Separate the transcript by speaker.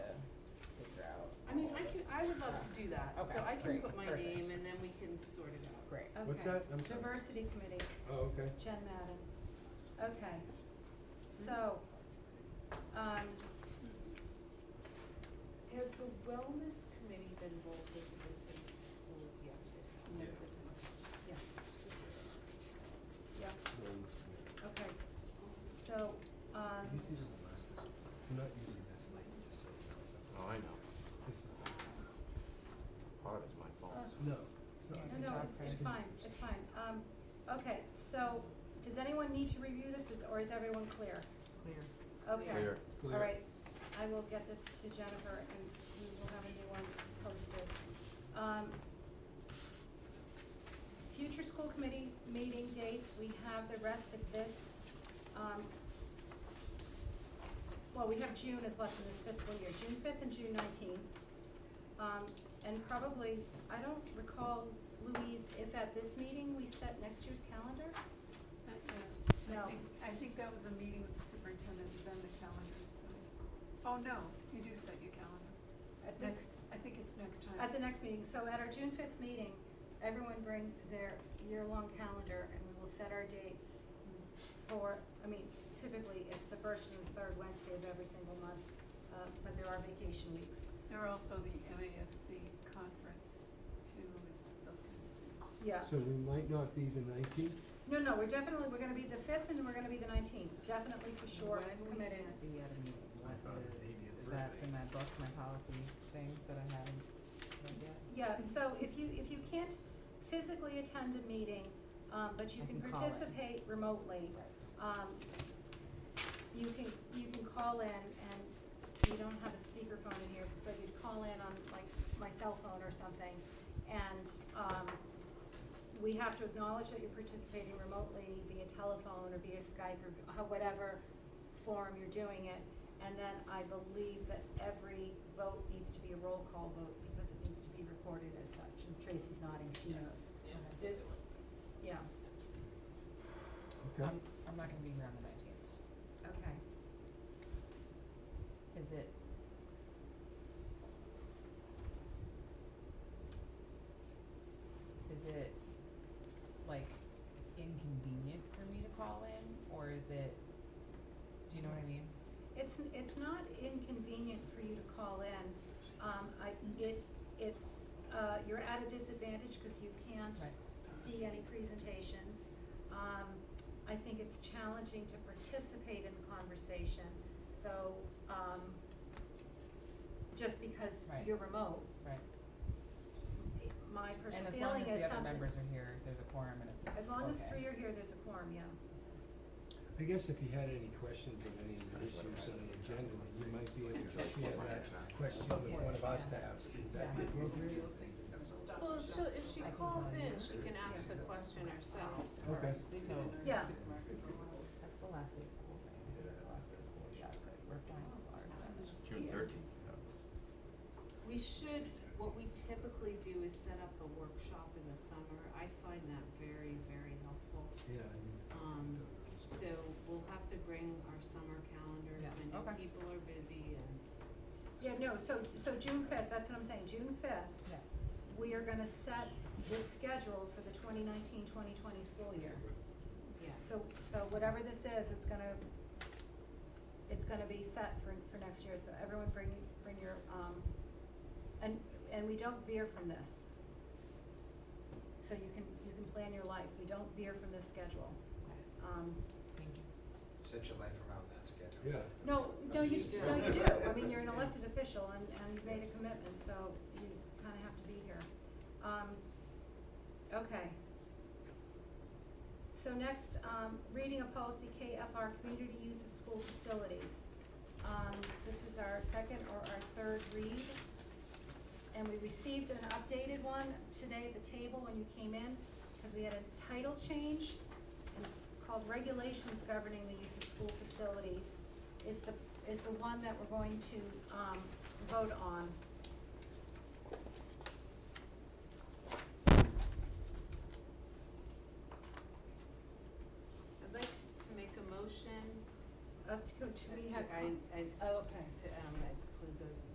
Speaker 1: that.
Speaker 2: Okay,
Speaker 1: So I can
Speaker 2: great,
Speaker 1: put my
Speaker 2: perfect.
Speaker 1: name and then we can sort it out.
Speaker 2: Great.
Speaker 3: Okay.
Speaker 4: What's that? I'm sorry.
Speaker 3: Diversity Committee,
Speaker 4: Oh, okay.
Speaker 3: Jen Madden. Okay, so, um,
Speaker 5: Has the wellness committee been rolled into the city schools? Yes, it has.
Speaker 4: Yeah.
Speaker 3: yeah, yeah,
Speaker 4: No, it's good.
Speaker 3: okay. So, um,
Speaker 4: You see the last this, I'm not usually this late, just so you know.
Speaker 6: Oh, I know.
Speaker 4: This is the,
Speaker 6: Part is my fault.
Speaker 4: no, it's not.
Speaker 3: no, no, it's, it's fine, it's fine. Um, okay, so, does anyone need to review this, is- or is everyone clear?
Speaker 2: Clear.
Speaker 3: Okay.
Speaker 6: Clear.
Speaker 4: Clear.
Speaker 3: All right, I will get this to Jennifer and we will have a new one posted. Um, future school committee meeting dates, we have the rest of this, um, well, we have June is left in this fiscal year, June fifth and June nineteenth. Um, and probably, I don't recall, Louise, if at this meeting we set next year's calendar?
Speaker 7: Uh,
Speaker 3: No.
Speaker 7: yeah. I think, I think that was a meeting with the superintendent, and then the calendar, so. Oh, no, you do set your calendar.
Speaker 3: At this-
Speaker 7: Next, I think it's next time.
Speaker 3: At the next meeting, so at our June fifth meeting, everyone bring their year-long calendar and we will set our dates for, I mean, typically it's the first and third Wednesday of every single month, uh, but there are vacation weeks.
Speaker 7: There are also the MASC conference too, and those kinds of things.
Speaker 3: Yeah,
Speaker 4: So we might not be the nineteenth,
Speaker 3: no, no, we're definitely, we're gonna be the fifth and we're gonna be the nineteenth, definitely for sure,
Speaker 2: When we
Speaker 3: committed.
Speaker 2: can't be at a meeting,
Speaker 4: My
Speaker 2: what
Speaker 4: father's
Speaker 2: is,
Speaker 4: 80th
Speaker 2: is that
Speaker 4: birthday.
Speaker 2: in that book, my policy thing that I haven't read yet?
Speaker 3: Yeah, so if you, if you can't physically attend a meeting, um, but you
Speaker 2: I
Speaker 3: can
Speaker 2: can call in.
Speaker 3: participate remotely,
Speaker 2: Right.
Speaker 3: um, you can, you can call in and you don't have a speakerphone in here, so you'd call in on like my cell phone or something. And, um, we have to acknowledge that you're participating remotely via telephone or via Skype or ho- whatever form you're doing it. And then I believe that every vote needs to be a roll call vote because it needs to be recorded as such. And Tracy's nodding, she knows. Did- Yeah,
Speaker 4: okay?
Speaker 2: I'm,
Speaker 3: Um,
Speaker 2: I'm not gonna be here on the nineteenth.
Speaker 3: okay.
Speaker 2: Is it? s- Is it like inconvenient for me to call in, or is it, do you know what I mean?
Speaker 3: It's, it's not inconvenient for you to call in. Um, I, it, it's, uh, you're at a disadvantage because you can't
Speaker 2: Right.
Speaker 3: see any presentations. Um, I think it's challenging to participate in the conversation, so, um, just because
Speaker 2: Right.
Speaker 3: you're remote,
Speaker 2: Right.
Speaker 3: it- my
Speaker 2: And
Speaker 3: personal
Speaker 2: as long
Speaker 3: feeling
Speaker 2: as
Speaker 3: is
Speaker 2: the other
Speaker 3: something,
Speaker 2: members are here, there's a quorum and it's okay.
Speaker 3: as long as three are here, there's a quorum, yeah.
Speaker 4: I guess if you had any questions of any of the issues on the agenda, then you might be able to share that question with one of us to ask, would that be appropriate?
Speaker 1: Well, if she, if she
Speaker 2: I can
Speaker 1: calls
Speaker 2: call
Speaker 1: in,
Speaker 2: you.
Speaker 1: she can ask the question herself.
Speaker 4: Okay.
Speaker 2: So.
Speaker 3: Yeah.
Speaker 2: That's the last day of school, right? I think That's the last day of school, yeah, but we're fine with our.
Speaker 6: June thirteenth.
Speaker 1: We should, what we typically do is set up a workshop in the summer. I find that very, very helpful.
Speaker 4: Yeah, I need to.
Speaker 1: Um, So we'll have to bring our summer calendars.
Speaker 2: Yeah,
Speaker 1: I know
Speaker 2: okay.
Speaker 1: people are busy and
Speaker 3: Yeah, no, so, so June fifth, that's what I'm saying, June fifth,
Speaker 2: Yeah.
Speaker 3: we are gonna set this schedule for the 2019-2020 school year.
Speaker 1: Yes.
Speaker 3: So, so whatever this is, it's gonna, it's gonna be set for, for next year, so everyone bring, bring your, um, and, and we don't veer from this. So you can, you can plan your life, we don't veer from this schedule. Um,
Speaker 2: Thank you.
Speaker 8: Set your life around that schedule.
Speaker 4: Yeah.
Speaker 3: no, no, you,
Speaker 1: do.
Speaker 3: no, you do, I mean, you're an elected official and, and you've made a commitment, so you kinda have to be here. Um, okay. So next, um, reading of policy KFR, community use of school facilities. Um, this is our second or our third read. And we received an updated one today at the table when you came in, cause we had a title change. And it's called Regulations Governing the Use of School Facilities is the, is the one that we're going to, um, vote on.
Speaker 1: I'd like to make a motion.
Speaker 3: Up to, do we
Speaker 1: to-
Speaker 3: have,
Speaker 1: I, um, I,
Speaker 3: oh,